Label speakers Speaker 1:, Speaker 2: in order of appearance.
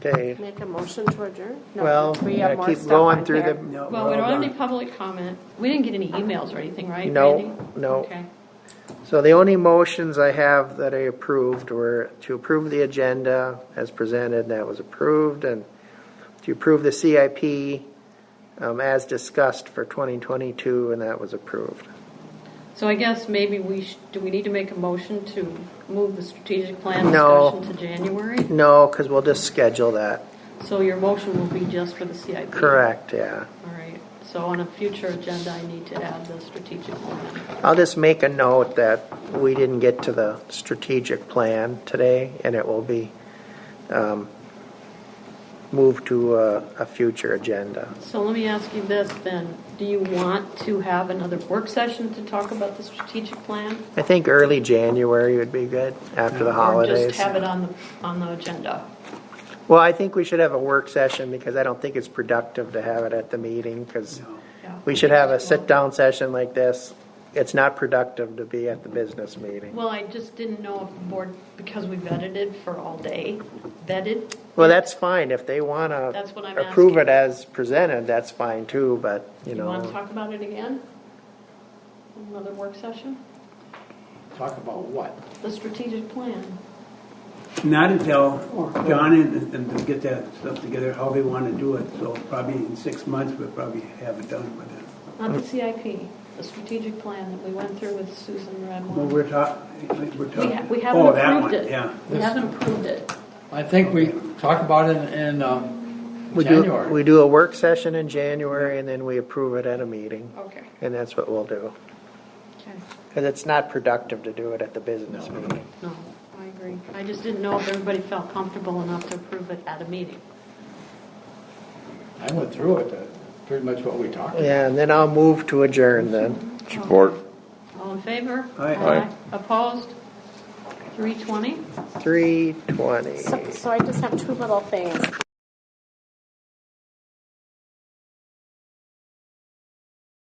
Speaker 1: Okay,
Speaker 2: Make a motion to adjourn? No,
Speaker 1: well,
Speaker 2: we have
Speaker 1: I
Speaker 2: more
Speaker 1: keep
Speaker 2: stuff
Speaker 1: going
Speaker 2: on
Speaker 1: through
Speaker 2: here.
Speaker 1: the,
Speaker 3: Well, we don't have any public comment. We didn't get any emails or anything, right,
Speaker 1: No,
Speaker 3: Randy?
Speaker 1: no.
Speaker 3: Okay.
Speaker 1: so the only motions I have that I approved were to approve the agenda as presented, that was approved, and to approve the CIP um, as discussed for 2022, and that was approved.
Speaker 3: So I guess maybe we, sh- do we need to make a motion to move the strategic plan
Speaker 1: No.
Speaker 3: discussion to January?
Speaker 1: No, because we'll just schedule that.
Speaker 3: So your motion will be just for the CIP?
Speaker 1: Correct, yeah.
Speaker 3: All right. So on a future agenda, I need to add the strategic plan.
Speaker 1: I'll just make a note that we didn't get to the strategic plan today, and it will be um, moved to a, a future agenda.
Speaker 3: So let me ask you this then. Do you want to have another work session to talk about the strategic plan?
Speaker 1: I think early January would be good, after the
Speaker 3: Or
Speaker 1: holidays.
Speaker 3: just have it on the, on the agenda?
Speaker 1: Well, I think we should have a work session, because I don't think it's productive to have it at the meeting, because
Speaker 3: Yeah.
Speaker 1: we should have a sit-down session like this. It's not productive to be at the business meeting.
Speaker 3: Well, I just didn't know if the board, because we vetted it for all day, vetted,
Speaker 1: Well, that's fine, if they want
Speaker 3: That's what I'm
Speaker 1: to approve it
Speaker 3: asking.
Speaker 1: as presented, that's fine too, but, you
Speaker 3: you
Speaker 1: know.
Speaker 3: want to talk about it again? Another work session?
Speaker 4: Talk about what?
Speaker 3: The strategic plan.
Speaker 5: Not until John and and them get that stuff together, how they want to do it, so probably in six months, we'll probably have it done by then.
Speaker 3: Not the CIP, the strategic plan that we went through with Susan
Speaker 5: Well,
Speaker 3: Redmond.
Speaker 5: we're talking, we're
Speaker 3: We ha-
Speaker 5: talking.
Speaker 3: we haven't
Speaker 5: Oh, that
Speaker 3: approved
Speaker 5: one,
Speaker 3: it.
Speaker 5: yeah.
Speaker 3: We haven't approved it.
Speaker 4: I think we talk about it in, um,
Speaker 1: We do,
Speaker 4: January.
Speaker 1: we do a work session in January and then we approve it at a meeting,
Speaker 3: Okay,
Speaker 1: and that's what we'll do.
Speaker 3: okay.
Speaker 1: Because it's not productive to do it at the business meeting.
Speaker 3: No, I agree. I just didn't know if everybody felt comfortable enough to approve it at a meeting.
Speaker 4: I went through it, uh, pretty much what we talked about.
Speaker 1: Yeah, and then I'll move to adjourn then.
Speaker 6: Support.
Speaker 3: All in favor?
Speaker 5: Aye.
Speaker 6: Aye.
Speaker 3: Opposed? 320?
Speaker 1: Three twenty.
Speaker 2: So- So I just have two little things.